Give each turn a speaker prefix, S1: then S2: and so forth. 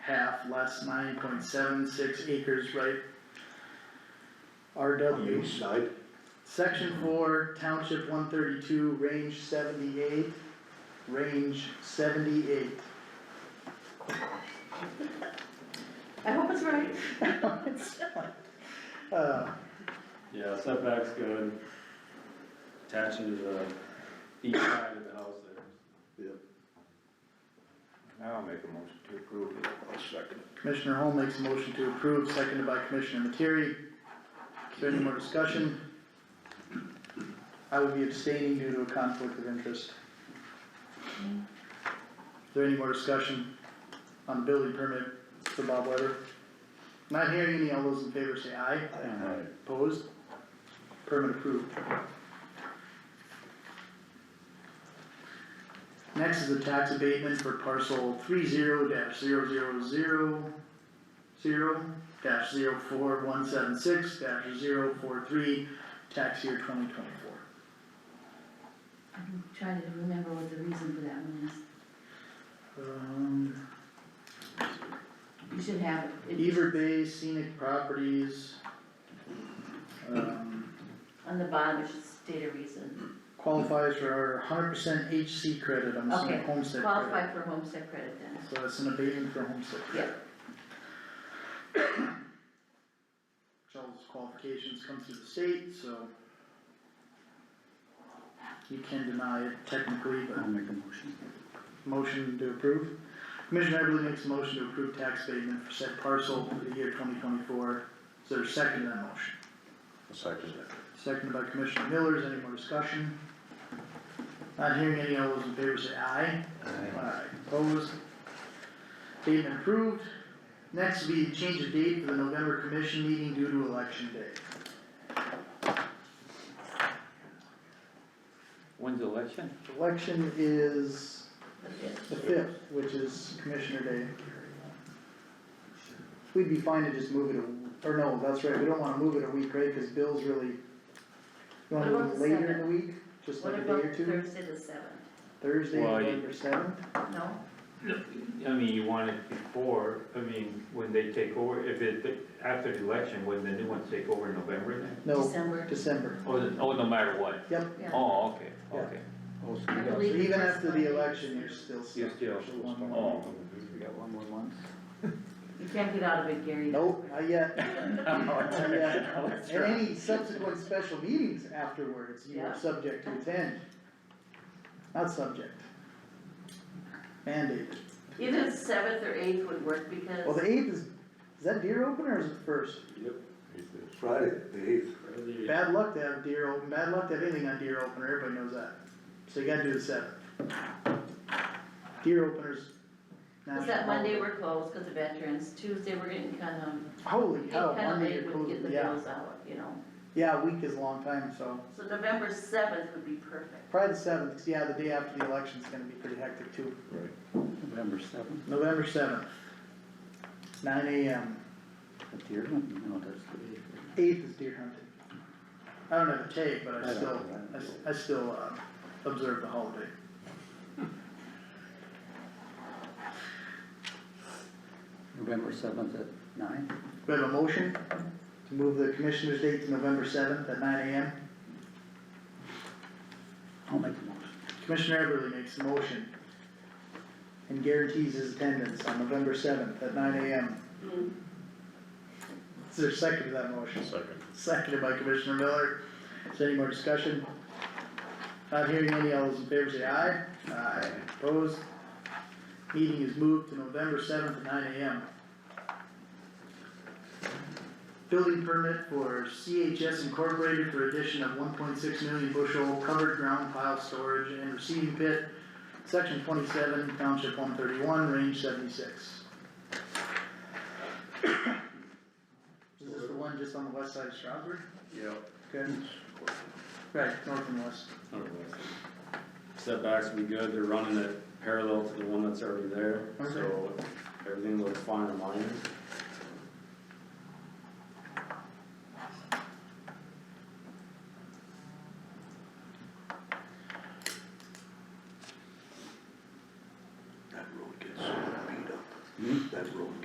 S1: half less nine point seven six acres, right? RW.
S2: east side,
S1: Section four, township one thirty-two, range seventy-eight, range seventy-eight.
S3: I hope it's right.
S1: Uh,
S4: Yeah, setback's good. Attaching to the east side of the house there.
S5: Now I'll make a motion to approve it.
S2: I'll second it.
S1: Commissioner Holm makes a motion to approve, seconded by Commissioner Materi. Is there any more discussion? I will be abstaining due to a conflict of interest. Is there any more discussion on the building permit for Bob Weber? Not hearing any, all those in favor say aye. Opposed? Permit approved. Next is a tax abatement for parcel three zero dash zero zero zero zero dash zero four one seven six dash zero four three, tax year twenty twenty-four.
S3: I'm trying to remember what the reason for that one is.
S1: Um,
S3: You should have it. It's
S1: Beaver Bay Scenic Properties. Um,
S3: On the bottom, it should state a reason.
S1: qualifies for our hundred percent HC credit, I'm assuming
S3: Okay,
S1: homestead credit.
S3: Qualify for homestead credit then.
S1: So it's an abatement for homestead credit.
S3: Yeah,
S1: which all those qualifications come through the state, so. You can deny it technically, but. I'll make a motion. Motion to approve. Commissioner Everly makes a motion to approve tax abatement for said parcel for the year twenty twenty-four. Is there a second to that motion?
S2: I'll second it.
S1: Seconded by Commissioner Miller, is there any more discussion? Not hearing any, all those in favor say aye. Alright, opposed. Statement approved. Next will be the change of date for the November commission meeting due to election day.
S5: When's the election?
S1: Election is
S3: that's it.
S1: the fifth, which is commissioner day. We'd be fine to just move it, a- or no, that's right, we don't wanna move it a week, right, cause Bill's really. You wanna move
S3: What about
S1: it
S3: the
S1: later in the
S3: seventh?
S1: week, just
S3: What
S1: like a day
S3: about
S1: or two,
S3: Thursday the seventh?
S1: Thursday,
S6: Well, you-
S1: November seventh?
S3: No?
S6: I mean, you want it before, I mean, when they take over, if it, after the election, when the new ones take over in November then?
S1: No,
S3: December.
S1: December,
S6: Oh, the- oh, no matter what?
S1: yep.
S3: Yeah.
S6: Oh, okay,
S1: Yeah.
S6: okay.
S5: Oh, so
S3: I
S5: we got,
S1: So
S3: believe
S1: even
S3: that's
S1: after
S3: fine.
S1: the election, you're still stuck.
S6: You're still
S1: with the one
S6: stuck.
S1: month.
S6: Oh.
S5: we got one more month.
S3: You can't get out of it, Gary.
S1: Nope, not yet, not yet.
S5: Let's
S1: And
S5: try.
S1: any subsequent special meetings afterwards, you are
S3: Yeah.
S1: subject to attend. Not subject. Mandated.
S3: Either the seventh or eighth would work
S1: Well,
S3: because
S1: the eighth is, is that deer open or is it first?
S2: Friday, the eighth.
S1: Bad luck to have deer open, bad luck to have anything on deer opener, everybody knows that. So you gotta do the seventh. Deer openers.
S3: Cause
S1: national
S3: that Monday
S1: holiday.
S3: we're closed because of veterans, Tuesday we're getting kind of,
S1: Holy
S3: get
S1: cow,
S3: kind of
S1: Oh, Monday you're
S3: late with getting the
S1: closing, yeah,
S3: bills out, you know?
S1: yeah, a week is a long time, so.
S3: So November seventh would be perfect.
S1: Probably the seventh, 'cause, yeah, the day after the election's gonna be pretty hectic too.
S5: November seventh,
S1: November seventh, nine AM,
S5: at the Irvin, no, that's the eighth.
S1: eighth is deer hunting. I don't have a tape, but
S5: I
S1: I
S5: don't
S1: still,
S5: know.
S1: I s- I, still, uh, observe the holiday.
S5: November seventh at nine?
S1: We have a motion to move the commissioner's date to November seventh at nine AM.
S5: I'll make the motion.
S1: Commissioner Everly makes a motion and guarantees his attendance on November seventh at nine AM. Is there a second to that motion?
S2: Second.
S1: Seconded by Commissioner Miller. Is there any more discussion? Not hearing any, all those in favor say aye. Aye. Opposed? Meeting is moved to November seventh at nine AM. Building permit for CHS Incorporated for addition of one point six million bushel covered ground pile storage and receiving pit, section twenty-seven, township one thirty-one, range seventy-six. Is this the one just on the west side of Stroudsburg?
S4: Yeah.
S1: Okay. Right, north and west.
S4: Setbacks will be good, they're running it parallel to the one that's already there, so everything looks fine in line.
S5: Hmm?